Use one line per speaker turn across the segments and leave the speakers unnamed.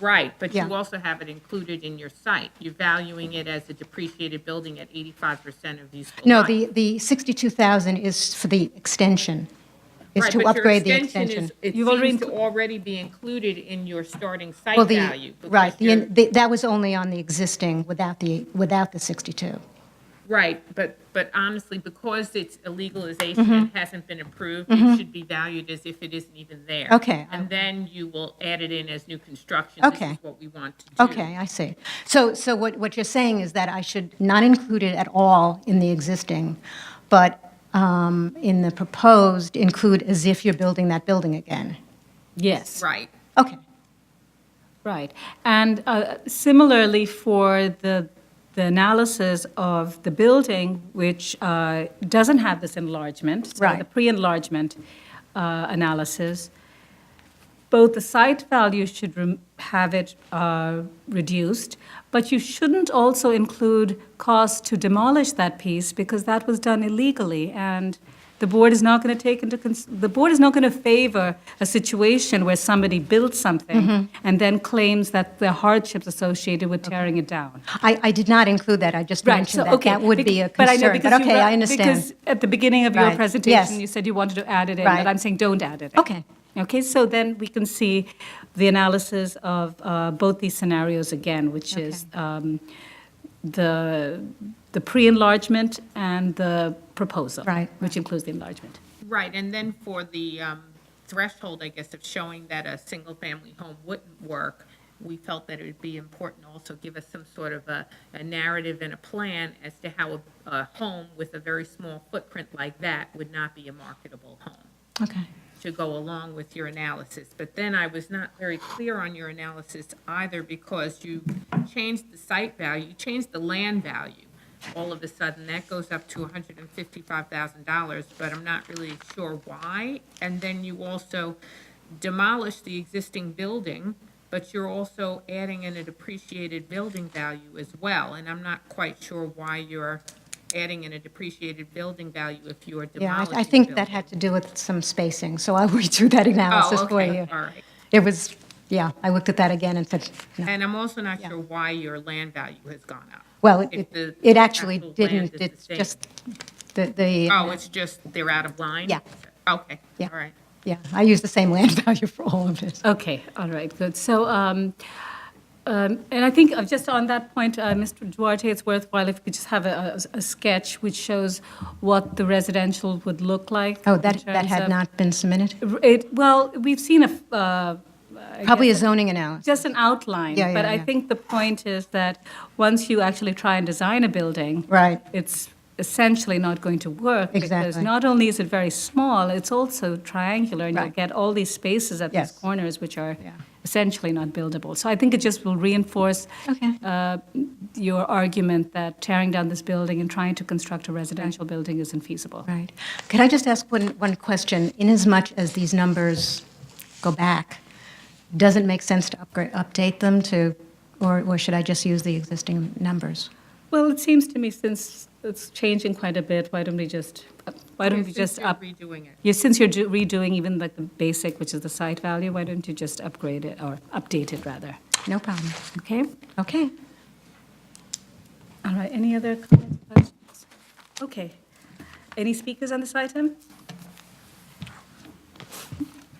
Right, but
Yeah.
you also have it included in your site. You're valuing it as a depreciated building at 85% of useful
No,
life.
the, the 62,000 is for the extension, is
Right,
to
but your
upgrade the
extension
extension.
is- It
You've already
seems to
inclu-
already be included in your starting
Well,
site
the-
value. because
Right, the,
you're-
in- the- that was only on the existing without the, without the 62.
Right, but, but honestly, because it's a
Mm-hmm.
legalization and hasn't been approved, it should be valued as if it isn't even there.
Okay.
And then you will add it in as new construction. This
Okay.
is what we want to do.
Okay, I see. So, so what, what you're saying is that I should not include it at all in the existing, but um, in the proposed, include as if you're building that building again?
Yes,
Right.
Okay,
right. And uh, similarly, for the, the analysis of the building, which uh, doesn't have this enlargement, so the
Right.
pre-enlargement uh, analysis, both the site value should rem- have it uh, reduced, but you shouldn't also include costs to demolish that piece because that was done illegally, and the board is not going to take into cons- the board is not going to favor a situation where somebody builds something and then claims that the hardships associated with tearing it down.
I, I did not include that, I just mentioned that. That would be a
Bec- but I know
concern, but
because you
okay,
re-
I understand.
Because at the beginning of
Right,
your
yes.
presentation, you said you wanted to add it in,
Right.
but I'm saying don't add it in.
Okay.
Okay, so then we can see the analysis of uh, both these scenarios again, which is um, the, the pre-enlargement and the proposal.
Right,
Which includes the enlargement.
Right, and then for the um, threshold, I guess, of showing that a single-family home wouldn't work, we felt that it would be important to also give us some sort of a, a narrative and a plan as to how a, a home with a very small footprint like that would not be a marketable home
Okay.
to go along with your analysis. But then I was not very clear on your analysis either because you changed the site value, you changed the land value. All of a sudden, that goes up to $155,000, but I'm not really sure why. And then you also demolish the existing building, but you're also adding in a depreciated building value as well. And I'm not quite sure why you're adding in a depreciated building value if you are
Yeah,
demolishing
I- I think
buildings.
that had to do with some spacing, so I'll read through that analysis for
Oh, okay,
you.
all right.
It was, yeah, I looked at that again and said, no.
And I'm also not sure why your land value has gone up.
well, it-
If the
it it actually
actual land
didn't,
is the
it's
same.
just, the, the.
Oh, it's just they're out of line?
Yeah.
Okay,
Yeah.
all right.
Yeah, I use the same land value for all of this.
Okay, all right, good. So, um, um, and I think uh, just on that point, uh, Mr. Duarte, it's worthwhile if we could just have a, a- a sketch which shows what the residential would look like.
Oh,
in
that, that
terms
had
of-
not been submitted?
It, well, we've seen a, f- uh,
Probably a zoning analysis.
just an outline.
Yeah, yeah,
But I
yeah.
think the point is that once you actually try and design a building.
Right.
It's essentially not going to work. Because
Exactly.
not only is it very small, it's also triangular. And you'll
Right.
get all these spaces at these
Yes.
corners, which are
Yeah.
essentially not buildable. So I think it just will reinforce.
Okay.
uh, Your argument that tearing down this building and trying to construct a residential building isn't feasible.
Right. Could I just ask one, one question? Inasmuch as these numbers go back, does it make sense to upgrade, update them to, or, or should I just use the existing numbers?
Well, it seems to me since it's changing quite a bit, why don't we just, why don't we
Since
just
you're
up?
Redoing it.
Yeah, since you're do- redoing even like the basic, which is the site value, why don't you just upgrade it or update it rather?
No problem.
Okay?
Okay.
All right, any other comments, questions? Okay. Any speakers on this item?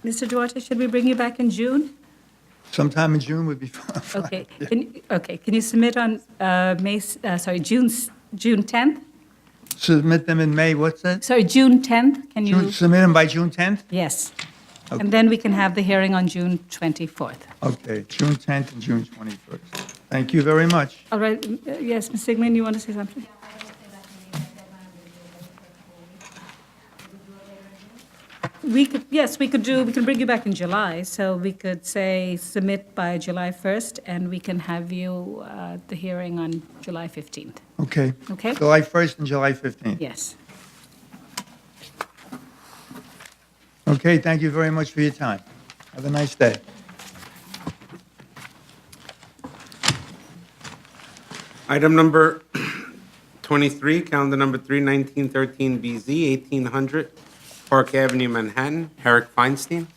Mr. Duarte, should we bring you back in June?
Sometime in June would be fine.
Okay, can, okay, can you submit on, uh, May, s- uh, sorry, June, s- June 10th?
Submit them in May, what's that?
Sorry, June 10th, can you?
June- Submit them by June 10th?
Yes.
Okay.
And then we can have the hearing on June 24th.
Okay, June 10th and June 21st. Thank you very much.
All right, m- uh, yes, Ms. Sigmund, you want to say something? We could, yes, we could do, we can bring you back in July, so we could say submit by July 1st, and we can have you uh, at the hearing on July 15th.
Okay.
Okay.
July 1st and July 15th.
Yes.
Okay, thank you very much for your time. Have a nice day.
Item number 23, calendar number 31913BZ, 1800 Park Avenue, Manhattan, Herrick Feinstein.